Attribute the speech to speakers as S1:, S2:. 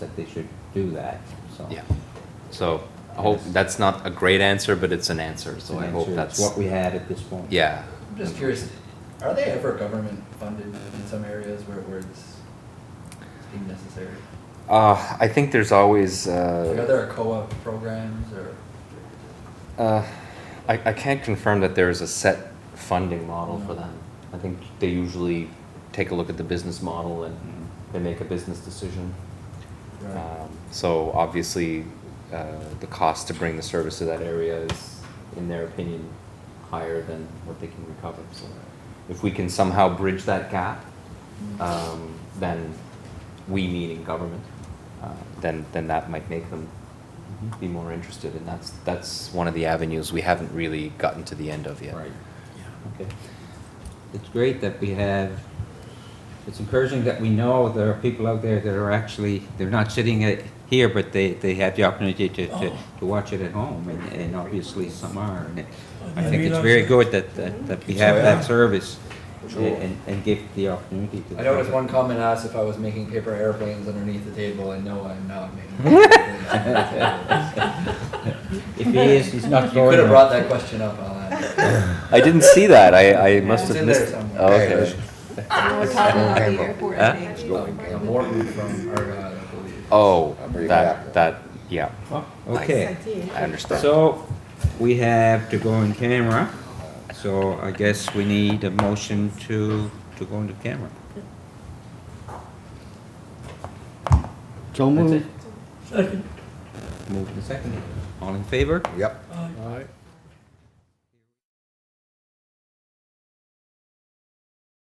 S1: that they should do that, so.
S2: Yeah. So I hope, that's not a great answer, but it's an answer,
S1: It's
S2: so
S1: an
S2: I hope
S1: answer. It's
S2: that's,
S1: what we had at this point.
S2: yeah.
S3: I'm just curious, are they ever government funded in some areas where, where it's deemed necessary?
S2: Uh, I think there's always,
S3: Like, are
S2: uh,
S3: there co-op programs or?
S2: uh, I, I can't confirm that there is a set funding model for them. I think they usually take a look at the business model and
S1: Mm-hmm.
S2: they make a business decision. Um, So obviously, uh, the cost to bring the service to that area is, in their opinion, higher than what they can recover. So if we can somehow bridge that gap,
S3: Mm.
S2: um, then we meaning government, uh, then, then that might make them
S1: Mm-hmm,
S2: be more interested. And that's, that's one of the avenues we haven't really gotten to the end of yet.
S1: Right. Okay. It's great that we have, it's encouraging that we know there are people out there that are actually, they're not sitting at- here, but they, they have the opportunity to, to, to watch it at home, and, and obviously some are. And it- I think it's very good that, that, that we have that service and, and give the opportunity to. the
S3: I noticed
S1: public.
S3: one comment asked if I was making paper airplanes underneath the table, and no, I'm not making. paper airplanes underneath the table.
S1: If he is, he's not
S3: You
S1: going.
S3: could have brought that question up, I'll add.
S2: I didn't see that. I, I must
S3: It's
S2: have
S3: in there
S2: missed.
S3: somewhere.
S2: Oh, okay.
S4: We're talking about the airport
S2: Huh?
S4: thing.
S3: Uh, Morton from Argyle, I believe.
S2: Oh,
S5: bring it
S2: that,
S5: back.
S2: that, yeah,
S1: Okay.
S2: I understand.
S1: So, we have to go in camera, so I guess we need a motion to, to go into camera.
S6: So
S1: That's it.
S6: moved.
S1: Moved and seconded. All in favor?
S5: Yep.
S6: Aye.